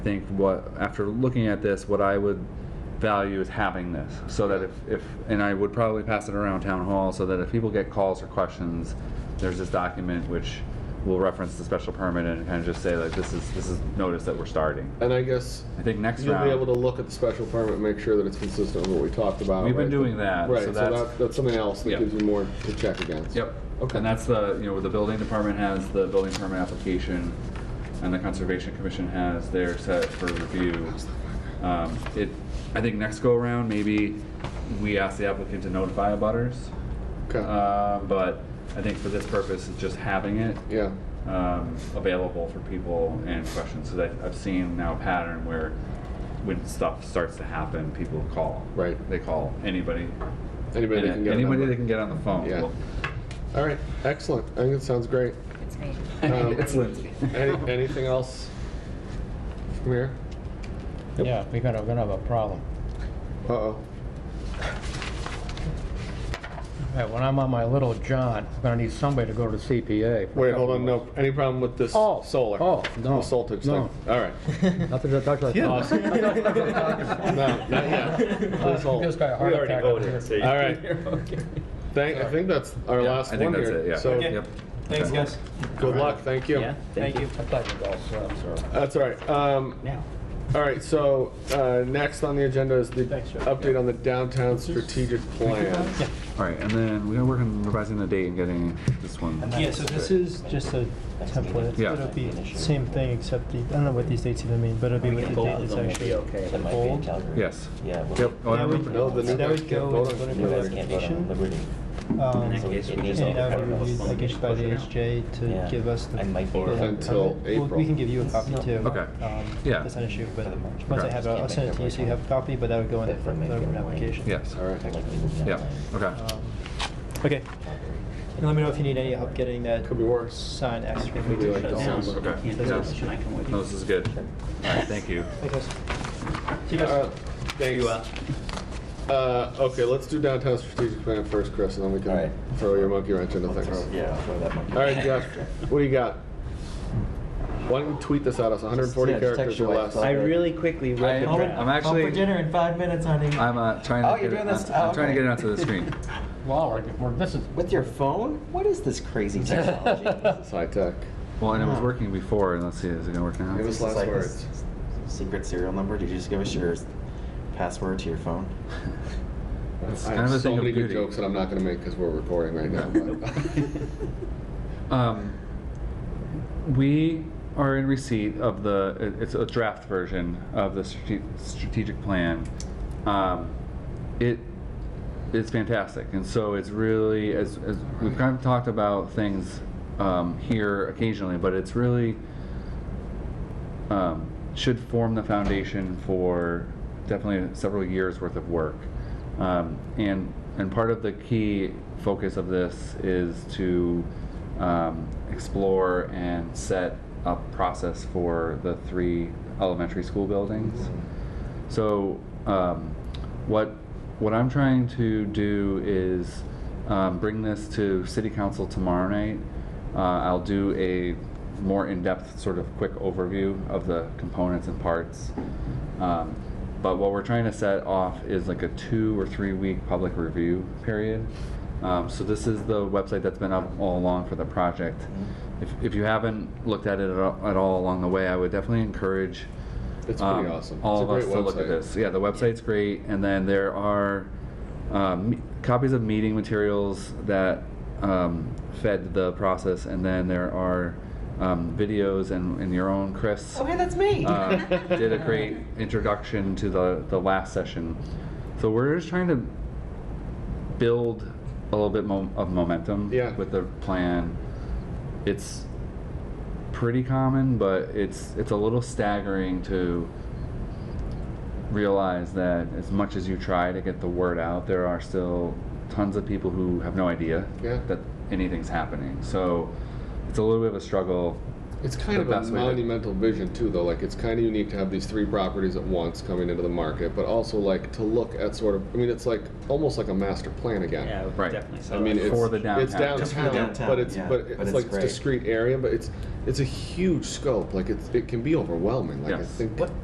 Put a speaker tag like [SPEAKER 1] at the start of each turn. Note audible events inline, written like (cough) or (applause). [SPEAKER 1] think what, after looking at this, what I would value is having this, so that if, if, and I would probably pass it around town hall, so that if people get calls or questions, there's this document which will reference the special permit and kind of just say like, this is, this is notice that we're starting.
[SPEAKER 2] And I guess
[SPEAKER 1] I think next
[SPEAKER 2] you'll be able to
[SPEAKER 1] round,
[SPEAKER 2] look at the special permit and make sure that it's consistent with what we talked about.
[SPEAKER 1] we've been
[SPEAKER 2] right?
[SPEAKER 1] doing that,
[SPEAKER 2] Right,
[SPEAKER 1] so
[SPEAKER 2] so
[SPEAKER 1] that's.
[SPEAKER 2] that, that's something else that
[SPEAKER 1] Yep.
[SPEAKER 2] gives you more to check against.
[SPEAKER 1] Yep.
[SPEAKER 2] Okay.
[SPEAKER 1] And that's the, you know, the building department has the building permit application, and the conservation commission has their set for review. Um, it, I think next go around, maybe we ask the applicant to notify abutters,
[SPEAKER 2] Okay,
[SPEAKER 1] uh, but I think for this purpose, it's just having it
[SPEAKER 2] yeah,
[SPEAKER 1] um, available for people and questions. So that I've seen now a pattern where when stuff starts to happen, people call.
[SPEAKER 2] Right.
[SPEAKER 1] They call anybody.
[SPEAKER 2] anybody that can get a
[SPEAKER 1] Anybody
[SPEAKER 2] number.
[SPEAKER 1] they can get on the phone.
[SPEAKER 2] Yeah.
[SPEAKER 1] Well,
[SPEAKER 2] All right, excellent, I think it sounds great.
[SPEAKER 3] It's me.
[SPEAKER 2] Um,
[SPEAKER 1] It's
[SPEAKER 3] (laughs)
[SPEAKER 1] Lindsay. (laughs)
[SPEAKER 2] Any, anything else from here?
[SPEAKER 4] Yeah, we're gonna, we're gonna have a problem.
[SPEAKER 2] Uh-oh,
[SPEAKER 4] Hey, When I'm on my little jaunt, I'm gonna need somebody to go to CPA. for a
[SPEAKER 2] wait,
[SPEAKER 4] couple
[SPEAKER 2] hold on, no, any problem with this
[SPEAKER 4] Oh,
[SPEAKER 2] solar?
[SPEAKER 4] oh, no,
[SPEAKER 2] The voltage thing,
[SPEAKER 4] no.
[SPEAKER 2] all right.
[SPEAKER 4] of- Nothing to touch like that.
[SPEAKER 2] No, not yet, please hold.
[SPEAKER 4] Just got a heart attack. up here.
[SPEAKER 2] All right.
[SPEAKER 5] (laughs)
[SPEAKER 2] Thank, I think that's our
[SPEAKER 4] Yeah,
[SPEAKER 2] last
[SPEAKER 1] I
[SPEAKER 2] one
[SPEAKER 1] think
[SPEAKER 2] here.
[SPEAKER 1] that's it, yeah.
[SPEAKER 2] So,
[SPEAKER 1] Yep.
[SPEAKER 5] Thanks, guys.
[SPEAKER 2] good luck, thank you.
[SPEAKER 5] Thank you.
[SPEAKER 4] I thought you were all set, I'm sorry.
[SPEAKER 2] That's all right. Um,
[SPEAKER 4] Now.
[SPEAKER 2] all right, so, uh, next on the agenda is the
[SPEAKER 4] Thanks, Joe.
[SPEAKER 2] update on the downtown strategic plan.
[SPEAKER 1] All right, and then we're gonna work on revising the date and getting this one.
[SPEAKER 5] Yeah, so this is just a template.
[SPEAKER 1] Yeah.
[SPEAKER 5] It'll be same thing, except the, I don't know what these dates even mean, but it'll be what the
[SPEAKER 6] Both
[SPEAKER 5] date
[SPEAKER 6] of
[SPEAKER 5] is
[SPEAKER 6] them will be okay.
[SPEAKER 5] actually
[SPEAKER 6] That might be in
[SPEAKER 5] bold.
[SPEAKER 6] Calgary.
[SPEAKER 1] Yes.
[SPEAKER 6] Yeah. well,
[SPEAKER 1] Yep. Oh, I
[SPEAKER 5] Now we-
[SPEAKER 1] remember.
[SPEAKER 2] No, the new
[SPEAKER 5] So that
[SPEAKER 2] guys
[SPEAKER 5] would
[SPEAKER 2] can't
[SPEAKER 5] go
[SPEAKER 2] vote
[SPEAKER 5] with
[SPEAKER 2] on
[SPEAKER 5] voting
[SPEAKER 2] it.
[SPEAKER 5] for
[SPEAKER 6] You guys can't vote on
[SPEAKER 5] application.
[SPEAKER 6] Liberty.
[SPEAKER 5] Um,
[SPEAKER 6] In that case, we just
[SPEAKER 5] And
[SPEAKER 6] all
[SPEAKER 5] that would be
[SPEAKER 6] have
[SPEAKER 5] reviewed,
[SPEAKER 6] to
[SPEAKER 5] like issued by the HJ to
[SPEAKER 6] Yeah.
[SPEAKER 5] give us the.
[SPEAKER 6] I might be
[SPEAKER 5] the-
[SPEAKER 6] Or
[SPEAKER 2] until
[SPEAKER 5] Well, We
[SPEAKER 2] April.
[SPEAKER 5] can give you a copy too.
[SPEAKER 1] Okay.
[SPEAKER 5] Um,
[SPEAKER 1] Yeah.
[SPEAKER 5] That's not an issue, but
[SPEAKER 6] For the March.
[SPEAKER 5] once I
[SPEAKER 1] Okay.
[SPEAKER 5] have it, I'll send it to you so you have a copy, but that would go in the
[SPEAKER 6] Different
[SPEAKER 5] the
[SPEAKER 6] maybe online.
[SPEAKER 5] application.
[SPEAKER 1] Yes.
[SPEAKER 2] All right.
[SPEAKER 6] Like we moved
[SPEAKER 1] Yeah.
[SPEAKER 6] online.
[SPEAKER 1] Okay.
[SPEAKER 5] Um, Okay. And let me know if you need any help getting that
[SPEAKER 2] Could be worse.
[SPEAKER 5] sign extra.
[SPEAKER 2] Could be like December.
[SPEAKER 1] Okay. Yeah. No, this is good. All right. Thank you.
[SPEAKER 5] Thanks, guys. See you guys.
[SPEAKER 2] Uh, Thanks. Uh, okay, let's do downtown strategic plan first, Chris, and then we
[SPEAKER 6] All
[SPEAKER 2] can
[SPEAKER 6] right.
[SPEAKER 2] throw your monkey wrench into things.
[SPEAKER 6] Yeah, I'll throw that monkey.
[SPEAKER 2] All right, Jeff, what do you got? Why don't you tweet this at us, 140
[SPEAKER 6] Yeah, just text
[SPEAKER 2] characters
[SPEAKER 6] your
[SPEAKER 2] or
[SPEAKER 6] wife,
[SPEAKER 2] less?
[SPEAKER 6] Bob.
[SPEAKER 7] I really quickly
[SPEAKER 1] I-
[SPEAKER 7] read the
[SPEAKER 1] I'm
[SPEAKER 7] draft.
[SPEAKER 1] actually-
[SPEAKER 5] Home for dinner in five minutes, honey.
[SPEAKER 1] I'm uh, trying to.
[SPEAKER 6] Oh,
[SPEAKER 1] get
[SPEAKER 6] you're
[SPEAKER 1] it on-
[SPEAKER 6] doing this?
[SPEAKER 1] I'm trying
[SPEAKER 6] Oh,
[SPEAKER 1] to
[SPEAKER 6] okay.
[SPEAKER 1] get it onto the
[SPEAKER 5] (laughs)
[SPEAKER 1] screen.
[SPEAKER 4] Wow, we're- we're- this is,
[SPEAKER 6] (laughs)
[SPEAKER 4] (laughs)
[SPEAKER 6] With your phone? What is this
[SPEAKER 2] (laughs)
[SPEAKER 6] crazy technology?
[SPEAKER 2] It's high tech.
[SPEAKER 1] Well, and it was working before, and let's see, is it gonna work now?
[SPEAKER 2] Give us
[SPEAKER 6] It's
[SPEAKER 2] last
[SPEAKER 6] like
[SPEAKER 2] words.
[SPEAKER 6] this Secret serial number? Did you just give us your password to
[SPEAKER 2] (laughs)
[SPEAKER 6] your phone?
[SPEAKER 1] (laughs) It's
[SPEAKER 2] I
[SPEAKER 1] kind
[SPEAKER 2] have
[SPEAKER 1] of a
[SPEAKER 2] so
[SPEAKER 1] thing of
[SPEAKER 2] many good
[SPEAKER 1] beauty.
[SPEAKER 2] jokes that I'm not going to make because we're recording right now.
[SPEAKER 6] (laughs)
[SPEAKER 2] but-
[SPEAKER 1] Um, we are in receipt of the, it- it's a draft version of the strate- strategic plan. Um, it is fantastic, and so it's really, as, as we've kind of talked about things um, here occasionally, but it's really um, should form the foundation for definitely several years worth of work. Um, and and part of the key focus of this is to um, explore and set a process for the three elementary school buildings. So, um, what what I'm trying to do is um, bring this to City Council tomorrow night. Uh, I'll do a more in-depth sort of quick overview of the components and parts. Um, but what we're trying to set off is like a two or three week public review period. Um, so this is the website that's been up all along for the project. If, if you haven't looked at it at all, at all along the way, I would definitely encourage
[SPEAKER 2] It's
[SPEAKER 1] um,
[SPEAKER 2] pretty awesome.
[SPEAKER 1] All
[SPEAKER 2] It's a
[SPEAKER 1] of us
[SPEAKER 2] great
[SPEAKER 1] to look at
[SPEAKER 2] website.
[SPEAKER 1] this. Yeah, the website's great, and then there are um, me- copies of meeting materials that um, fed the process, and then there are um, videos and, and your own Chris.
[SPEAKER 6] Oh, hey, that's me! (laughs)
[SPEAKER 1] uh,
[SPEAKER 2] (laughs)
[SPEAKER 1] did a great introduction to the the last session. So we're just trying to build a little bit mo- of momentum
[SPEAKER 2] Yeah.
[SPEAKER 1] with the plan. It's pretty common, but it's it's a little staggering to realize that as much as you try to get the word out, there are still tons of people who have no idea
[SPEAKER 2] Yeah.
[SPEAKER 1] that anything's happening. So it's a little bit of a struggle.
[SPEAKER 2] It's kind
[SPEAKER 1] the
[SPEAKER 2] of a
[SPEAKER 1] best way to-
[SPEAKER 2] monumental vision too, though. Like it's kind of unique to have these three properties at once coming into the market, but also like to look at sort of. I mean, it's like almost like a master plan again.
[SPEAKER 5] Yeah,
[SPEAKER 1] Right.
[SPEAKER 5] definitely. So
[SPEAKER 2] I mean,
[SPEAKER 5] like-
[SPEAKER 2] it's,
[SPEAKER 1] For the
[SPEAKER 2] it's
[SPEAKER 1] downtown.
[SPEAKER 2] downtown,
[SPEAKER 6] Just for the downtown,
[SPEAKER 2] but it's
[SPEAKER 6] yeah.
[SPEAKER 2] but it's
[SPEAKER 6] But it's
[SPEAKER 2] like
[SPEAKER 6] great.
[SPEAKER 2] discrete area, but it's it's a huge scope. Like it's it can be overwhelming. Like
[SPEAKER 1] Yes.
[SPEAKER 2] I think what